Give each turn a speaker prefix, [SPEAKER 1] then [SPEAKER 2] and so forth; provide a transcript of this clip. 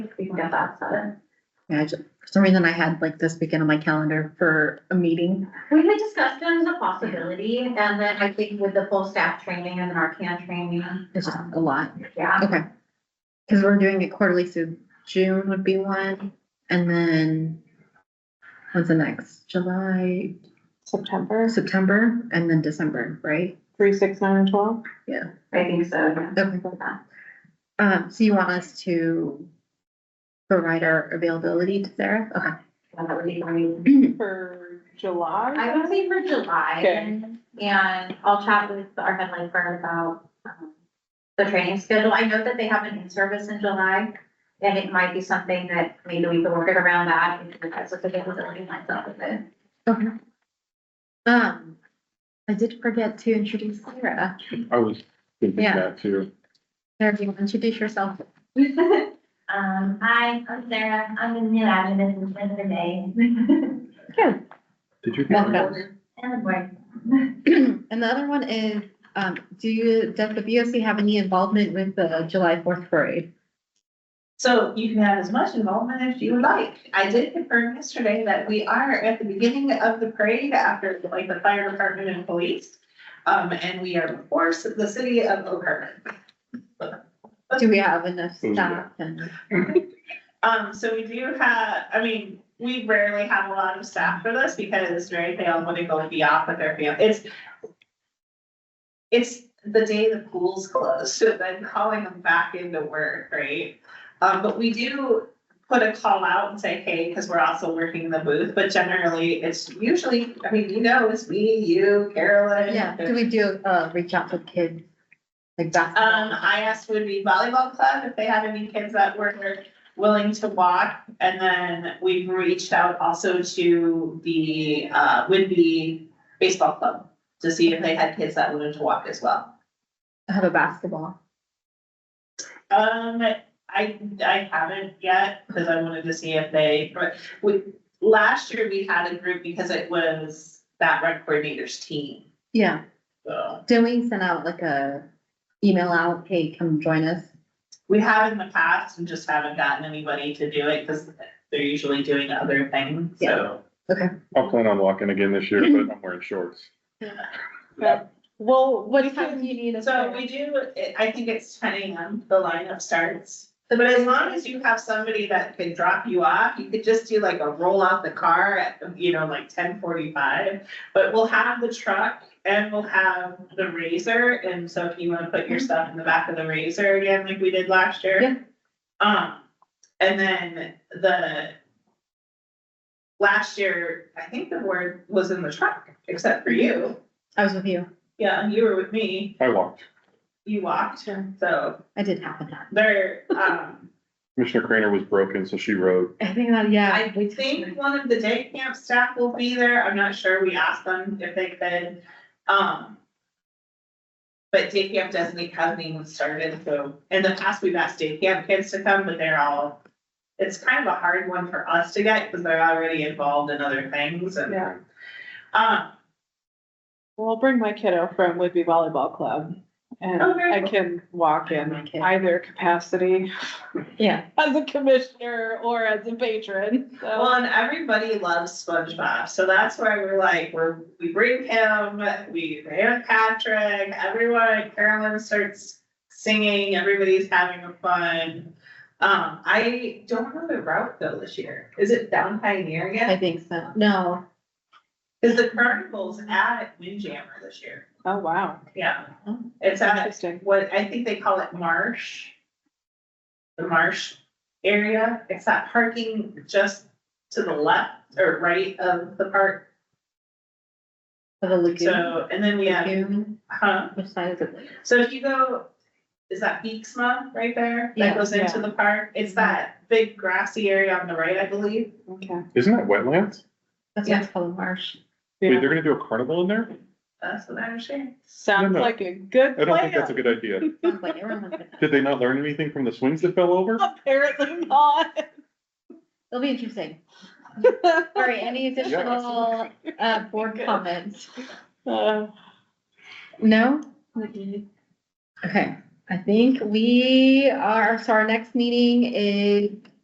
[SPEAKER 1] at that seven.
[SPEAKER 2] Yeah, I ju- for some reason I had like this weekend on my calendar for a meeting.
[SPEAKER 1] We had discussed it as a possibility, and then I think with the full staff training and our can training.
[SPEAKER 2] It's just
[SPEAKER 1] um,
[SPEAKER 2] a lot.
[SPEAKER 1] Yeah,
[SPEAKER 2] Okay. Cause we're doing it quarterly, so June would be one and then when's the next? July,
[SPEAKER 3] September,
[SPEAKER 2] September and then December, right?
[SPEAKER 3] three, six, nine, and twelve.
[SPEAKER 1] I think so, yeah.
[SPEAKER 2] Okay. Um, so you want us to provide our availability to Sarah? Okay.
[SPEAKER 1] That would be, I mean,
[SPEAKER 3] For July?
[SPEAKER 1] I would say for July,
[SPEAKER 3] Okay.
[SPEAKER 1] and I'll chat with our head lifer about um, the training schedule. I know that they have an in-service in July, and it might be something that maybe we could work it around that, if that's what the availability lines up with it.
[SPEAKER 2] Okay. Um, I did forget to introduce Sarah.
[SPEAKER 4] I was thinking
[SPEAKER 2] Yeah.
[SPEAKER 4] that too.
[SPEAKER 2] Sarah, do you want to introduce yourself?
[SPEAKER 5] Um, hi, I'm Sarah. I'm the new admin assistant today
[SPEAKER 4] Did you?
[SPEAKER 2] Welcome.
[SPEAKER 5] and the board.
[SPEAKER 2] And the other one is, um, do you, does the BOC have any involvement with the July fourth parade?
[SPEAKER 6] So you can have as much involvement as you would like. I did confirm yesterday that we are at the beginning of the parade after like the fire department and police. Um, and we are, of course, the city of Oak Harbor.
[SPEAKER 2] Do we have enough staff and?
[SPEAKER 6] Um, so we do have, I mean, we rarely have a lot of staff for this because very they all want to go and be off with their family. It's it's the day the pool's closed, so then calling them back into work, right? Um, but we do put a call out and say, hey, because we're also working the booth, but generally it's usually, I mean, you know, it's me, you, Carolyn.
[SPEAKER 2] Yeah, do we do, uh, reach out to kids? Like
[SPEAKER 6] Um,
[SPEAKER 2] basketball?
[SPEAKER 6] I asked would be volleyball club if they had any kids that were willing to walk. And then we've reached out also to the, uh, would be baseball club to see if they had kids that wanted to walk as well.
[SPEAKER 2] Have a basketball.
[SPEAKER 6] Um, I, I haven't yet, because I wanted to see if they, but we, last year we had a group because it was that rec coordinator's team.
[SPEAKER 2] Yeah,
[SPEAKER 6] So
[SPEAKER 2] did we send out like a email out, hey, come join us?
[SPEAKER 6] we have in the past and just haven't gotten anybody to do it because they're usually doing other things, so.
[SPEAKER 4] I'll plan on walking again this year, but I'm wearing shorts.
[SPEAKER 3] Well, what
[SPEAKER 6] We
[SPEAKER 3] time
[SPEAKER 6] have-
[SPEAKER 3] do you need us
[SPEAKER 6] So
[SPEAKER 3] there?
[SPEAKER 6] we do, it- I think it's ten AM, the lineup starts. But as long as you have somebody that can drop you off, you could just do like a roll out the car at, you know, like ten forty-five. But we'll have the truck and we'll have the razor, and so if you wanna put your stuff in the back of the razor again, like we did last year.
[SPEAKER 2] Yeah.
[SPEAKER 6] Um, and then the last year, I think the word was in the truck, except for you.
[SPEAKER 2] I was with you.
[SPEAKER 6] Yeah, you were with me,
[SPEAKER 4] I walked.
[SPEAKER 6] you walked,
[SPEAKER 3] Sure.
[SPEAKER 6] so
[SPEAKER 2] I did happen that.
[SPEAKER 6] there, um,
[SPEAKER 4] Commissioner Crainer was broken, so she rode.
[SPEAKER 2] I think that, yeah.
[SPEAKER 6] I think one of the day camp staff will be there. I'm not sure. We asked them if they could. Um. But day camp doesn't, it hasn't even started, so in the past, we've asked day camp kids to come, but they're all. It's kind of a hard one for us to get because they're already involved in other things and.
[SPEAKER 3] Yeah.
[SPEAKER 6] Um,
[SPEAKER 3] Well, I'll bring my kiddo from Whitby Volleyball Club and
[SPEAKER 6] Oh, very
[SPEAKER 3] I
[SPEAKER 6] cool.
[SPEAKER 3] can walk in
[SPEAKER 2] Okay.
[SPEAKER 3] either capacity
[SPEAKER 2] Yeah.
[SPEAKER 3] as a commissioner or as a patron,
[SPEAKER 6] well,
[SPEAKER 3] so.
[SPEAKER 6] and everybody loves SpongeBob, so that's why we're like, we're, we bring him, we, Anna Patrick, everyone, Carolyn starts singing, everybody's having a fun. Um, I don't know the route though this year. Is it down Pioneer
[SPEAKER 2] I
[SPEAKER 6] yet?
[SPEAKER 2] think so. No.
[SPEAKER 6] Is the carnival's at Windjammer this year?
[SPEAKER 3] Oh, wow.
[SPEAKER 6] Yeah,
[SPEAKER 2] Oh.
[SPEAKER 6] it's at
[SPEAKER 3] Interesting.
[SPEAKER 6] what, I think they call it Marsh. The Marsh area. It's that parking just to the left or right of the park.
[SPEAKER 2] For the lagoon.
[SPEAKER 6] So, and then we have,
[SPEAKER 2] Lagoon.
[SPEAKER 6] huh?
[SPEAKER 2] Which side is it?
[SPEAKER 6] So if you go, is that Beeksma right there?
[SPEAKER 2] Yeah,
[SPEAKER 6] That goes into
[SPEAKER 3] yeah.
[SPEAKER 6] the park? It's that big grassy area on the right, I believe.
[SPEAKER 3] Okay.
[SPEAKER 4] Isn't that wetlands?
[SPEAKER 2] That's why it's called a marsh.
[SPEAKER 4] Wait,
[SPEAKER 3] Yeah.
[SPEAKER 4] they're gonna do a carnival in there?
[SPEAKER 6] That's what I understand.
[SPEAKER 3] Sounds
[SPEAKER 4] No, no.
[SPEAKER 3] like a good
[SPEAKER 4] I don't think that's a
[SPEAKER 3] plan.
[SPEAKER 4] good idea.
[SPEAKER 2] Sounds like everyone wants it.
[SPEAKER 4] Did they not learn anything from the swings that fell over?
[SPEAKER 3] Apparently not.
[SPEAKER 2] It'll be interesting. All right, any additional, uh, board comments?
[SPEAKER 3] Uh,
[SPEAKER 2] No? Okay, I think we are, so our next meeting is